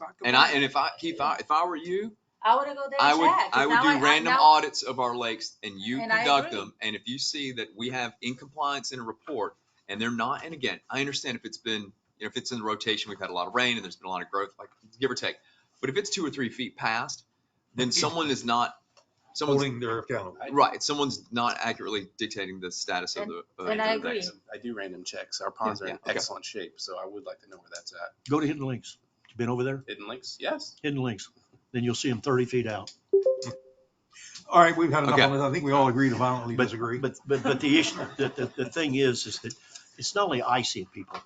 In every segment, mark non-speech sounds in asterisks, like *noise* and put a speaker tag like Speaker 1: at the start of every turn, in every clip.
Speaker 1: Fuck 'em
Speaker 2: And I,
Speaker 1: up.
Speaker 2: and if I, Keith, I- if I were you,
Speaker 3: I would go there
Speaker 2: I
Speaker 3: and
Speaker 2: would,
Speaker 3: check. 'cause
Speaker 2: I would
Speaker 3: now
Speaker 2: do random
Speaker 3: now-
Speaker 2: audits of our lakes and you
Speaker 3: And I
Speaker 2: conduct
Speaker 3: agree.
Speaker 2: them. And if you see that we have incompliance in a report and they're not, and again, I understand if it's been, you know, if it's in the rotation, we've had a lot of rain and there's been a lot of growth, like give or take. But if it's two or three feet past, then someone is not, someone's,
Speaker 4: holding their accountable.
Speaker 2: right, someone's not accurately dictating the status of the. of
Speaker 3: and I
Speaker 2: the
Speaker 3: agree.
Speaker 2: lakes.
Speaker 5: I do random checks. Our ponds are
Speaker 2: yeah,
Speaker 5: in
Speaker 2: okay.
Speaker 5: excellent shape, so I would like to know where that's at.
Speaker 6: Go to Hidden Links. You been over there?
Speaker 5: Hidden Lakes, yes.
Speaker 6: Hidden Links. Then you'll see them thirty feet out.
Speaker 4: All right, we've had enough
Speaker 2: Okay.
Speaker 4: on this. I think we all agree to violently
Speaker 6: But-
Speaker 4: disagree.
Speaker 6: But, but, but the issue, the, the, the thing is, is that it's not only I seeing people,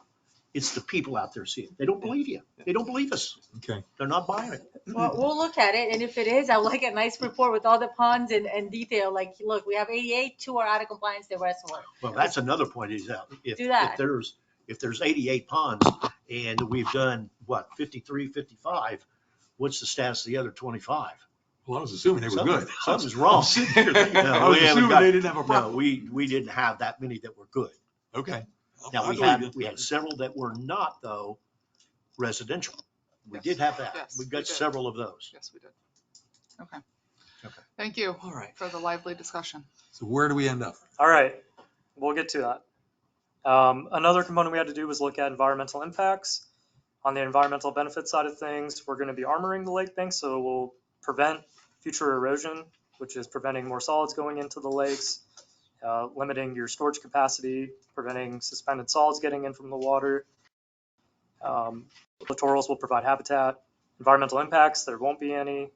Speaker 6: it's the people out there seeing. it. They don't believe you. They don't believe us.
Speaker 4: Okay.
Speaker 6: They're not buying it.
Speaker 3: *laughs* Well, we'll look at it, and if it is, I would like a nice report with all the ponds and, and detail, like, look, we have eighty-eight, two are out of compliance, the rest were.
Speaker 6: Well, that's another point is out. If,
Speaker 3: Do that.
Speaker 6: if there's, if there's eighty-eight ponds and we've done, what, 53, 55, what's the status of the other twenty-five?
Speaker 4: Well, I was assuming they were good. *laughs* Oh,
Speaker 6: Something- something's wrong.
Speaker 4: I'm sitting here thinking,
Speaker 6: No,
Speaker 4: I was
Speaker 6: we haven't
Speaker 4: assuming
Speaker 6: got-
Speaker 4: they didn't have a
Speaker 6: No,
Speaker 4: problem.
Speaker 6: we, we didn't have that many that were good.
Speaker 4: Okay.
Speaker 6: Now,
Speaker 4: I
Speaker 6: we
Speaker 4: believe
Speaker 6: had,
Speaker 4: you.
Speaker 6: we had several that were not though residential. We did have that.
Speaker 1: Yes,
Speaker 6: We've
Speaker 1: we
Speaker 6: got
Speaker 1: did.
Speaker 6: several of those.
Speaker 1: Yes, we did. Okay.
Speaker 6: Okay.
Speaker 1: Thank you
Speaker 2: All right.
Speaker 1: for the lively discussion.
Speaker 4: So where do we end up?
Speaker 7: All right, we'll get to that. Um, another component we had to do was look at environmental impacts. On the environmental benefit side of things, we're going to be armoring the lake banks, so we'll prevent future erosion, which is preventing more solids going into the lakes, uh, limiting your storage capacity, preventing suspended solids getting in from the water. Um, Littorals will provide habitat. Environmental impacts, there won't be any.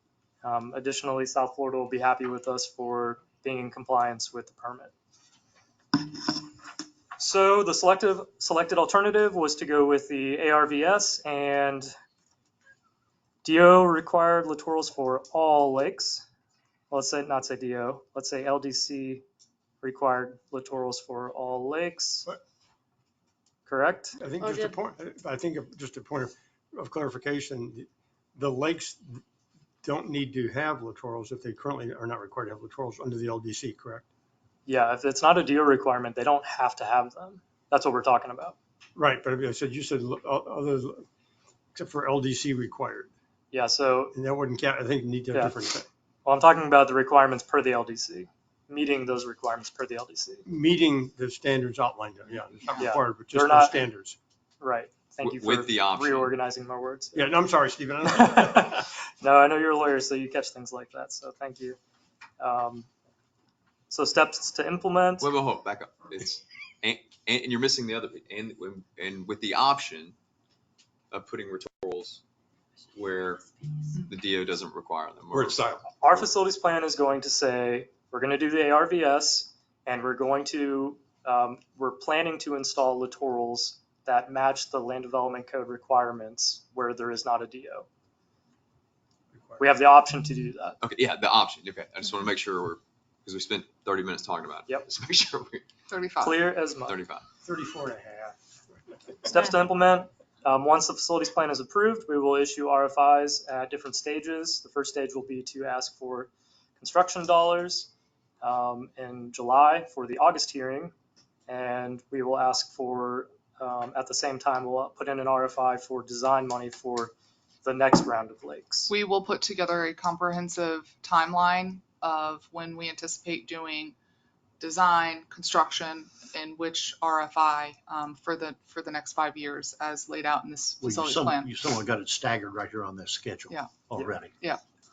Speaker 7: Um, additionally, South Florida will be happy with us for being in compliance with the permit. So the selective, selected alternative was to go with the ARVS and DO required littorals for all lakes. Let's say, not say DO, let's say LDC required littorals for all lakes.
Speaker 4: What?
Speaker 7: Correct?
Speaker 8: I think
Speaker 3: Or
Speaker 8: just a
Speaker 3: did-
Speaker 8: point, I think of- just a point of- of clarification, the lakes don't need to have littorals if they currently are not required to have littorals under the LDC, correct?
Speaker 7: Yeah, if it's not a DO requirement, they don't have to have them. That's what we're talking about.
Speaker 8: Right, but I said, you said lo- o- other, except for LDC required,
Speaker 7: Yeah, so,
Speaker 8: and that wouldn't count, I think you need to have
Speaker 7: Yeah.
Speaker 8: different, thing.
Speaker 7: well, I'm talking about the requirements per the LDC, meeting those requirements per the LDC.
Speaker 8: meeting the standards outlined, there. yeah, it's not
Speaker 7: Yeah.
Speaker 8: required, but
Speaker 7: They're
Speaker 8: just the
Speaker 7: not-
Speaker 8: standards.
Speaker 7: Right. Thank you
Speaker 2: W-
Speaker 7: for
Speaker 2: with the option.
Speaker 7: reorganizing my words.
Speaker 8: Yeah, no, I'm sorry, Stephen.
Speaker 7: *laughs* no, I know you're a lawyer, so you catch things like that. So thank you. Um, so steps to implement.
Speaker 2: Wait, wait, hold, back up. It's, and, and and you're missing the other, and, and with the option of putting retorals where the DO doesn't require them.
Speaker 4: We're at silent.
Speaker 7: Our facilities plan is going to say we're going to do the ARVS, and we're going to um, we're planning to install littorals that match the land development code requirements where there is not a DO. We have the option to do that.
Speaker 2: Okay, yeah, the option. Okay, I just want to make sure we're, because we spent thirty minutes talking about it.
Speaker 7: Yep.
Speaker 2: Just make sure we're
Speaker 1: Thirty-five.
Speaker 7: Clear as mud.
Speaker 2: thirty-five.
Speaker 8: Thirty-four and a half.
Speaker 7: Steps to implement, um, once the facilities plan is approved, we will issue RFIs at different stages. The first stage will be to ask for construction dollars, um, in July for the August hearing. And we will ask for, um, at the same time, we'll put in an RFI for design money for the next round of lakes.
Speaker 1: We will put together a comprehensive timeline of when we anticipate doing design, construction, and which RFI um, for the, for the next five years as laid out in this
Speaker 6: Well, you
Speaker 1: facilities
Speaker 6: some,
Speaker 1: plan.
Speaker 6: you somewhat got it staggered right here on this schedule.
Speaker 1: Yeah.
Speaker 6: Already.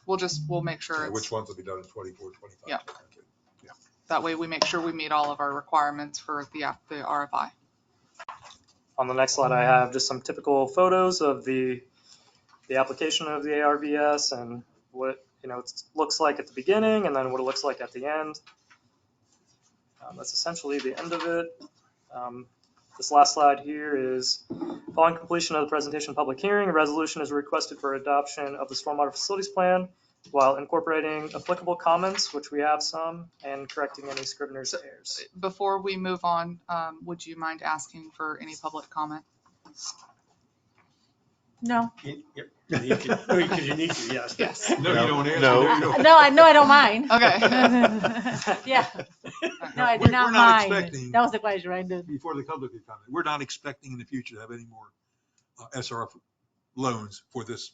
Speaker 1: We'll just, we'll make sure,
Speaker 4: So
Speaker 1: it's
Speaker 4: Which ones will be done in 24, 25?
Speaker 1: Yeah. that way we make sure we meet all of our requirements for the, app- the RFI.
Speaker 7: On the next slide, I have just some typical photos of the, the application of the ARVS and what, you know, it looks like at the beginning and then what it looks like at the end. Um, That's essentially the end of it. Um, This last slide here is, following completion of the presentation public hearing, a resolution is requested for adoption of the stormwater facilities plan while incorporating applicable comments, which we have some, and correcting any scrivener's
Speaker 1: So-
Speaker 7: errors.
Speaker 1: Before we move on, um, would you mind asking for any public comment?
Speaker 3: No,
Speaker 8: Because you need to, yes.
Speaker 1: *laughs* Yes.
Speaker 4: No, you don't answer. Oh,
Speaker 6: No.
Speaker 4: No, you don't.
Speaker 3: no, I know, I don't mind.
Speaker 1: Okay.
Speaker 4: *laughs*
Speaker 3: Yeah, no, I
Speaker 4: We're-
Speaker 3: do not
Speaker 4: We're not
Speaker 3: mind.
Speaker 4: expecting,
Speaker 3: That was the question, right? The-
Speaker 4: before the public could comment, we're not expecting in the future to have any more uh, SRF loans for this